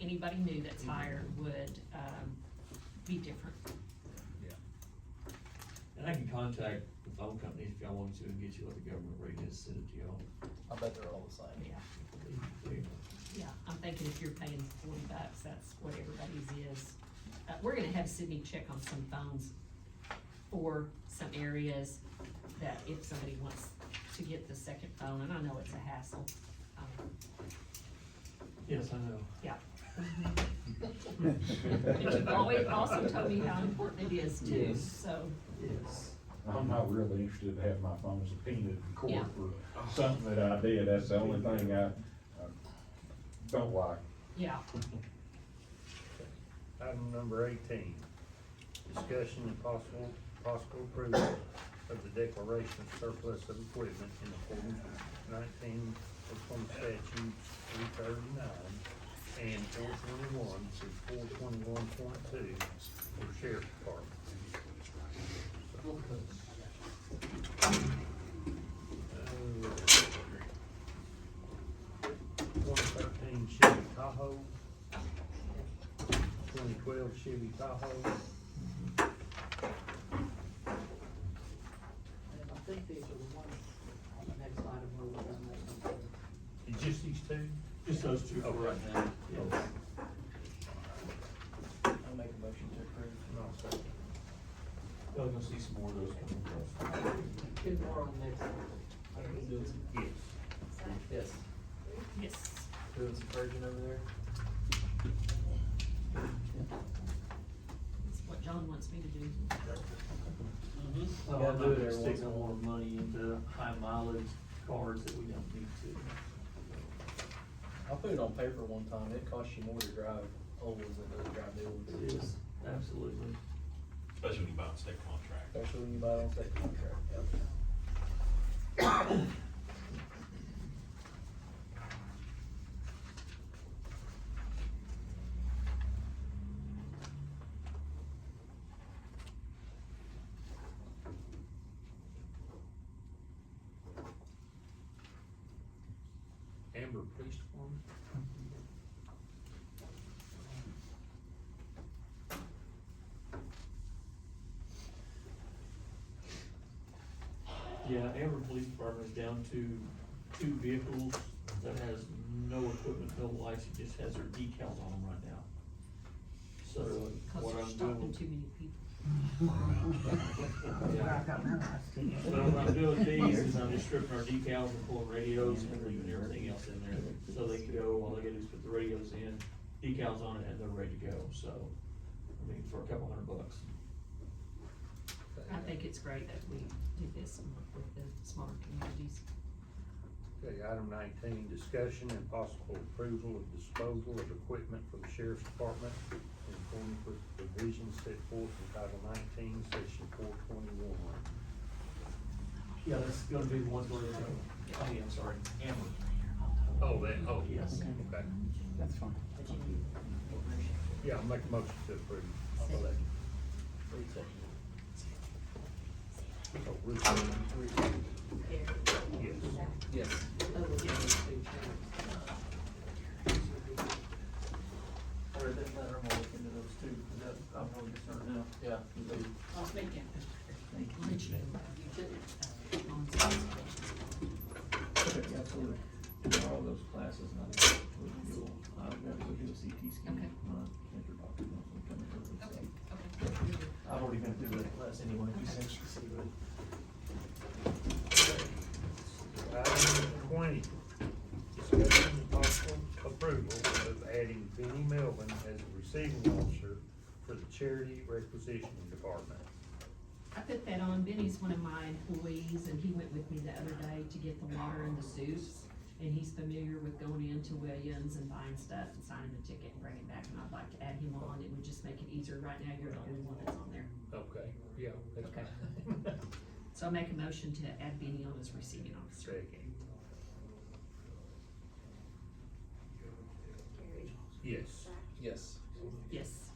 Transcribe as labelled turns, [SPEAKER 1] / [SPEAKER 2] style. [SPEAKER 1] anybody new that's hired would, um, be different.
[SPEAKER 2] And I can contact the phone companies if y'all want to and get you what the government rate is, send it to y'all.
[SPEAKER 3] I bet they're all the same.
[SPEAKER 1] Yeah,
[SPEAKER 2] There you go.
[SPEAKER 1] yeah, I'm thinking if you're paying forty bucks, that's what everybody's is. Uh, we're gonna have Sydney check on some phones for some areas that if somebody wants to get the second phone, and I know it's a hassle. um,
[SPEAKER 2] Yes, I know.
[SPEAKER 1] Yeah. But you've always also told me how important it is too,
[SPEAKER 2] Yes.
[SPEAKER 1] so,
[SPEAKER 2] Yes.
[SPEAKER 4] I'm not really interested in having my phone subpoenaed in
[SPEAKER 1] Yeah.
[SPEAKER 4] court for something that I did, that's the only thing I, I don't like.
[SPEAKER 1] yeah.
[SPEAKER 5] Item number eighteen, discussion and possible, possible approval of the declaration of surplus of equipment in accordance with nineteen Oklahoma statutes three thirty-nine and four twenty-one through four twenty-one point two for sheriff department. Uh, One thirteen Chevy Tahoe, twenty twelve Chevy Tahoe,
[SPEAKER 6] And I think these are the ones on the next item where we're gonna make them.
[SPEAKER 5] Is just these two?
[SPEAKER 2] Just those two.
[SPEAKER 5] Oh, right now.
[SPEAKER 2] Yes.
[SPEAKER 3] I'll make a motion to approve.
[SPEAKER 5] No, sir.
[SPEAKER 2] Y'all gonna see some more of those coming across.
[SPEAKER 6] Two more on the next item.
[SPEAKER 5] Yes.
[SPEAKER 3] Yes,
[SPEAKER 1] Yes.
[SPEAKER 3] doing some purging over there.
[SPEAKER 1] That's what John wants me to do.
[SPEAKER 2] Oh,
[SPEAKER 3] Gotta
[SPEAKER 2] I'm
[SPEAKER 3] do
[SPEAKER 2] not
[SPEAKER 3] it
[SPEAKER 2] gonna
[SPEAKER 3] every
[SPEAKER 2] stick
[SPEAKER 3] once in
[SPEAKER 2] no
[SPEAKER 3] a while.
[SPEAKER 2] more money into high mileage cars that we don't need to.
[SPEAKER 3] I put it on paper one time, it costs you more to drive old ones than it does to drive new ones.
[SPEAKER 2] Yes, absolutely.
[SPEAKER 7] Especially when you buy on state contract.
[SPEAKER 3] Especially when you buy it on state contract, yep.
[SPEAKER 5] Amber Police Department?
[SPEAKER 2] Yeah, Amber Police Department is down to two vehicles that has no equipment, no lights, it just has their decals on them right now. So
[SPEAKER 1] Cause
[SPEAKER 2] what
[SPEAKER 1] we're
[SPEAKER 2] I'm
[SPEAKER 1] stopping
[SPEAKER 2] doing.
[SPEAKER 1] too many people.
[SPEAKER 2] Yeah. But what I'm doing these is I'm just stripping our decals and pulling radios and leaving everything else in there. So they can go, all they gotta do is put the radios in, decals on it, and they're ready to go, so, I mean, for a couple hundred bucks.
[SPEAKER 1] I think it's great that we did this and work with the smaller communities.
[SPEAKER 5] Okay, item nineteen, discussion and possible approval of disposal of equipment for the sheriff's department in accordance with the provisions set forth in Title nineteen, Section four twenty-one.
[SPEAKER 2] Yeah, that's gonna be one where, oh, yeah, I'm sorry, Amber.
[SPEAKER 5] Oh, that, oh,
[SPEAKER 2] Yes.
[SPEAKER 5] Okay.
[SPEAKER 8] That's fine.
[SPEAKER 5] Yeah, I'll make a motion to approve.
[SPEAKER 3] Three seconds.
[SPEAKER 5] Oh, Ruth, Yes.
[SPEAKER 3] Yes. Or that letter, I'm gonna look into those two, because that, I'm really concerned now. Yeah.
[SPEAKER 6] I'll speak in.
[SPEAKER 1] Lynchburg,
[SPEAKER 6] You too.
[SPEAKER 1] uh, on Saturday.
[SPEAKER 3] Okay, absolutely. And all those classes, and I think we can do, I've got to go do a CT scan.
[SPEAKER 1] Okay.
[SPEAKER 3] My cancer doctor knows I'm coming early, so.
[SPEAKER 1] Okay, okay. You're good.
[SPEAKER 3] I've already been through that class anyway, you said she see it.
[SPEAKER 5] Item number twenty, discussion and possible approval of adding Benny Melvin as a receiving officer for the charity requisitioning department.
[SPEAKER 1] I put that on, Benny's one of my employees, and he went with me the other day to get the water and the soups. And he's familiar with going into Williams and buying stuff and signing the ticket and bringing it back, and I'd like to add him on, it would just make it easier, right now, you're the only one that's on there.
[SPEAKER 5] Okay, yeah, that's
[SPEAKER 1] Okay.
[SPEAKER 5] fine.
[SPEAKER 1] So I make a motion to add Benny on as receiving officer.
[SPEAKER 5] Second. Yes.
[SPEAKER 1] Yes.
[SPEAKER 3] Yes.
[SPEAKER 5] Oh. Oh,